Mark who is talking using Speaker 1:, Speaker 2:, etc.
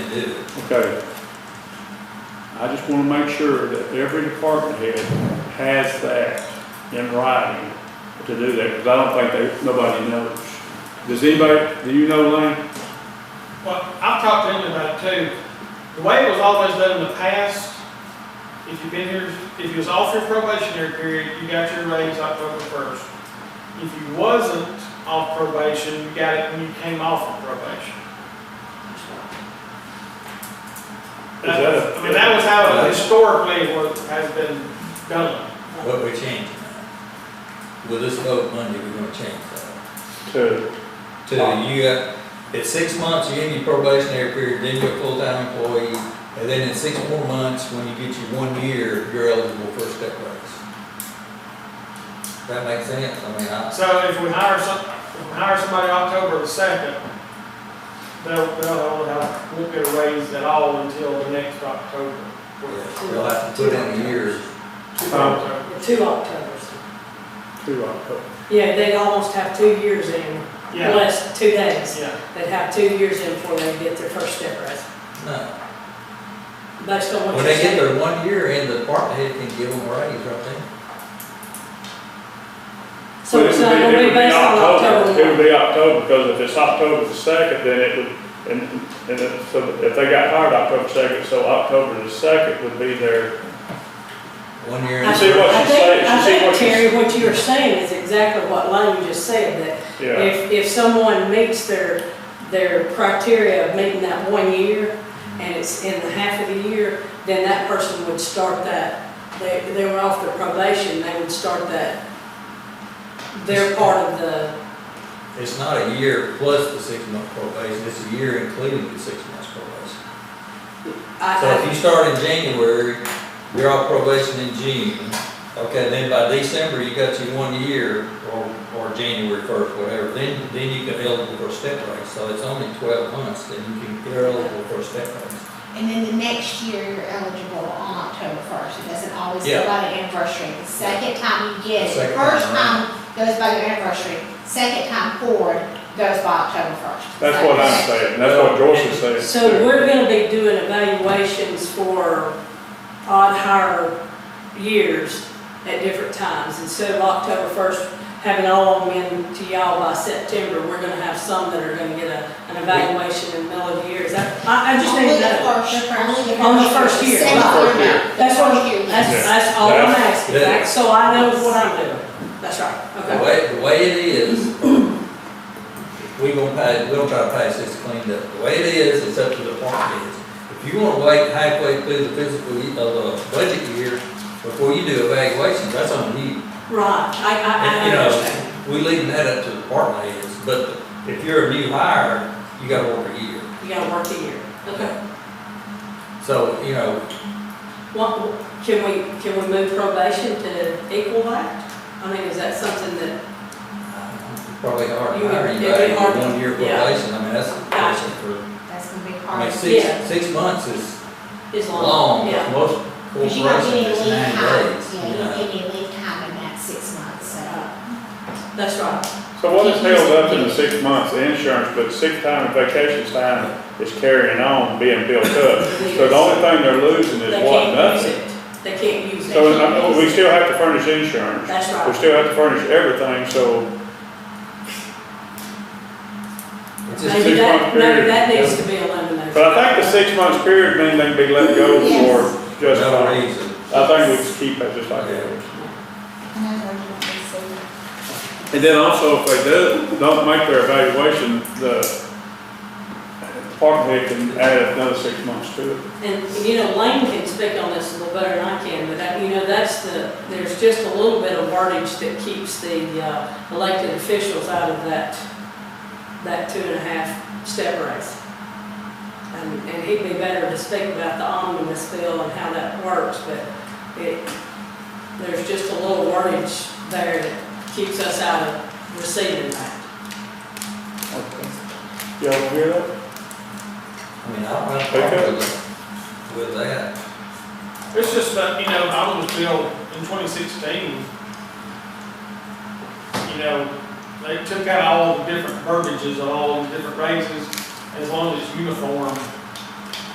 Speaker 1: did it.
Speaker 2: Okay. I just want to make sure that every department head has that in writing to do that, because I don't think they, nobody knows. Does anybody, do you know, Lane?
Speaker 3: Well, I've talked to him about it too. The way it was always done in the past, if you've been here, if you was off your probationary period, you got your raise October first. If you wasn't off probation, you got it when you came off of probation.
Speaker 2: Is that a-
Speaker 3: I mean, that was how it historically was, has been done.
Speaker 1: What we're changing With this vote Monday, we're gonna change that.
Speaker 2: To,
Speaker 1: To you, got- it's six months, you're in your probationary period, then you're a full-time employee, and then in six more months, when you get your one year, you're eligible for a step raise. That makes sense, I mean, I,
Speaker 3: So if we hire some, if we hire somebody October the second, they'll, they'll only have, won't get a raise at all until the next October.
Speaker 1: you'll have to put in a year.
Speaker 3: October.
Speaker 4: Two Octobers.
Speaker 2: to October.
Speaker 4: Yeah, they'd almost have two years in,
Speaker 3: Yeah,
Speaker 4: less two days.
Speaker 3: yeah.
Speaker 4: They'd have two years in before they get their first step raise,
Speaker 1: No,
Speaker 4: based on
Speaker 1: when
Speaker 4: what you're
Speaker 1: they get
Speaker 4: saying.
Speaker 1: their one year in, the department head can give them a raise right there.
Speaker 4: So it's not gonna be based on
Speaker 2: It would
Speaker 4: October one.
Speaker 2: be October, because if it's October the second, then it would, and, and if- so if they got hired October second, so October the second would be their,
Speaker 1: One year.
Speaker 4: I
Speaker 1: in.
Speaker 2: see what
Speaker 4: I
Speaker 2: she's
Speaker 4: think,
Speaker 2: saying.
Speaker 4: I
Speaker 2: She see
Speaker 4: think
Speaker 2: what she's-
Speaker 4: Terry, what you were saying is exactly what Lane just said, that
Speaker 2: yeah.
Speaker 4: If, if someone meets their, their criteria of meeting that one year, and it's in the half of the year, then that person would start that, they, they were off their probation, they would start that, their part of the,
Speaker 1: It's not a year plus the six month probation, it's a year including the six months probation. So if
Speaker 4: I,
Speaker 1: you start in January, you're off probation in June, okay, then by December, you got your one year, or, or January first, whatever, then, then you can eligible for a step raise, so it's only twelve months, then you can, you're eligible for a step raise.
Speaker 5: And then the next year, you're eligible on October first, it doesn't always
Speaker 1: Yeah.
Speaker 5: go by the anniversary. The second time you get
Speaker 1: The
Speaker 5: it, the
Speaker 1: second
Speaker 5: first
Speaker 1: time
Speaker 5: time goes by your anniversary, second time forward goes by October first.
Speaker 2: That's what I'm saying, that's what Joyce is
Speaker 4: I,
Speaker 2: saying.
Speaker 4: so we're gonna be doing evaluations for odd hire years at different times, instead of October first, having all of them in to y'all by September, we're gonna have some that are gonna get a, an evaluation in the middle of the year, is that, I, I just
Speaker 5: Only
Speaker 4: need to
Speaker 5: the
Speaker 4: know.
Speaker 5: first, only the.
Speaker 4: On the first year.
Speaker 5: Second
Speaker 2: On the first
Speaker 5: year,
Speaker 2: year.
Speaker 5: no. The
Speaker 4: That's what,
Speaker 5: first year,
Speaker 4: that's,
Speaker 5: yes.
Speaker 4: that's all I'm asking,
Speaker 1: Yeah.
Speaker 4: right? so I know what I'm doing, that's right,
Speaker 1: The
Speaker 4: okay.
Speaker 1: way, the way it is, we gonna pay, we don't try to pass this cleaned up, the way it is, it's up to the department heads. If you wanna wait halfway through the fiscal, ye- uh, the budget year before you do evaluations, that's on you.
Speaker 4: Right, I, I, I
Speaker 1: And, you
Speaker 4: understand.
Speaker 1: know, we leaving that up to the department heads, but if you're a new hire, you gotta work a year.
Speaker 4: You gotta work a year, okay.
Speaker 1: So, you know,
Speaker 4: What, can we, can we move probation to equal that? I mean, is that something that,
Speaker 1: probably hard to
Speaker 4: You would-
Speaker 1: hire
Speaker 4: it'd be
Speaker 1: anybody
Speaker 4: hard
Speaker 1: with
Speaker 4: to-
Speaker 1: one year
Speaker 4: yeah.
Speaker 1: probation, I mean, that's, that's,
Speaker 4: Gotcha.
Speaker 1: for-
Speaker 5: That's gonna be
Speaker 1: I mean,
Speaker 5: hard.
Speaker 4: Yeah.
Speaker 1: six, six months is
Speaker 4: is long?
Speaker 1: long, for
Speaker 4: Yeah,
Speaker 1: most
Speaker 5: Cause you don't
Speaker 1: corporations,
Speaker 5: get any
Speaker 1: it's
Speaker 5: leave
Speaker 1: nine
Speaker 5: time,
Speaker 1: days,
Speaker 5: yeah,
Speaker 1: you
Speaker 5: you don't
Speaker 1: know.
Speaker 5: get any leave time in that six months, so.
Speaker 4: Uh, that's right,
Speaker 2: So what is held up in the six months, the insurance, but sick time and vacation time is carrying on, being built up. So the only thing they're losing is
Speaker 4: they
Speaker 2: what,
Speaker 4: can't use
Speaker 2: nothing.
Speaker 4: it, they can't use it.
Speaker 2: So I mean, we still have to furnish insurance.
Speaker 4: That's
Speaker 2: We
Speaker 4: right,
Speaker 2: still have to furnish everything, so,
Speaker 1: It's just,
Speaker 4: maybe that,
Speaker 2: six-month period.
Speaker 4: maybe that needs to be eliminated.
Speaker 2: but I think the six months period means they can be let go for just
Speaker 1: no
Speaker 2: fine.
Speaker 1: reason.
Speaker 2: I think we just keep it just like that. And then also, if they do, don't make their evaluation, the department head can add another six months to it.
Speaker 4: And, you know, Lane can speak on this a little better than I can, but that, you know, that's the, there's just a little bit of wordage that keeps the uh, elected officials out of that, that two and a half step raise. And, and he'd be better to speak about the omnibus bill and how that works, but it, there's just a little wordage there that keeps us out of receiving that.
Speaker 2: Y'all hear that?
Speaker 1: I mean, I don't have a problem with, with that.
Speaker 3: It's just that, you know, I was built in twenty sixteen. You know, they took out all the different verbiages, all the different raises, as long as it's uniform.